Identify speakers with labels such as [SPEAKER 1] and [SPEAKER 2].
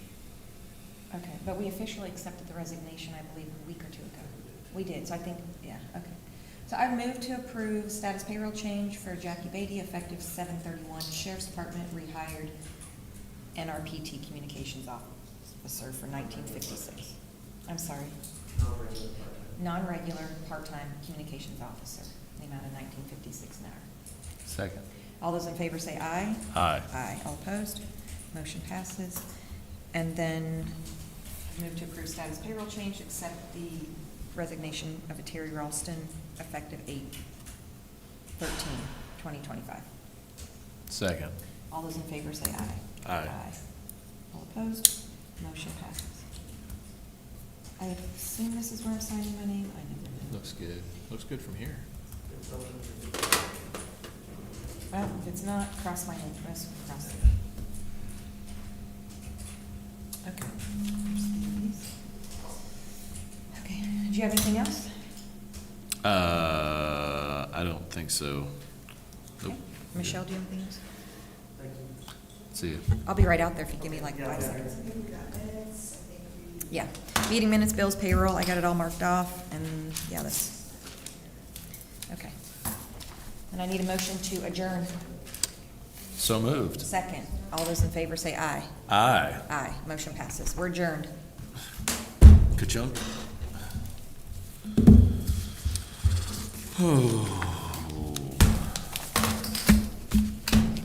[SPEAKER 1] Okay, but we officially accepted the resignation, I believe, a week or two ago. We did, so I think, yeah, okay. So I move to approve status payroll change for Jackie Beatty, effective seven thirty-one, Sheriff's Department, rehired NRPT Communications Officer for nineteen fifty-six. I'm sorry,
[SPEAKER 2] non-regular part-time.
[SPEAKER 1] non-regular, part-time communications officer, in the amount of nineteen fifty-six an hour.
[SPEAKER 3] Second.
[SPEAKER 1] All those in favor say aye.
[SPEAKER 3] Aye.
[SPEAKER 1] Aye. All opposed? Motion passes. And then move to approve status payroll change, accept the resignation of a Terry Ralston effective eight thirteen twenty twenty-five.
[SPEAKER 3] Second.
[SPEAKER 1] All those in favor say aye.
[SPEAKER 3] Aye.
[SPEAKER 1] All opposed? Motion passes. I assume this is where I'm signing my name? I never know.
[SPEAKER 3] Looks good. Looks good from here.
[SPEAKER 2] There's something to do.
[SPEAKER 1] Well, if it's not, cross my interest, cross it. Okay. There's these. Okay, do you have anything else?
[SPEAKER 3] Uh, I don't think so. Nope.
[SPEAKER 1] Okay. Michelle, do you have anything else?
[SPEAKER 2] Thank you.
[SPEAKER 3] See you.
[SPEAKER 1] I'll be right out there if you give me like five seconds. Yeah, meeting minutes, bills, payroll, I got it all marked off, and, yeah, that's, okay. And I need a motion to adjourn.
[SPEAKER 3] So moved.
[SPEAKER 1] Second, all those in favor say aye.
[SPEAKER 3] Aye.
[SPEAKER 1] Aye, motion passes, we're adjourned.
[SPEAKER 3] Ka-chunk.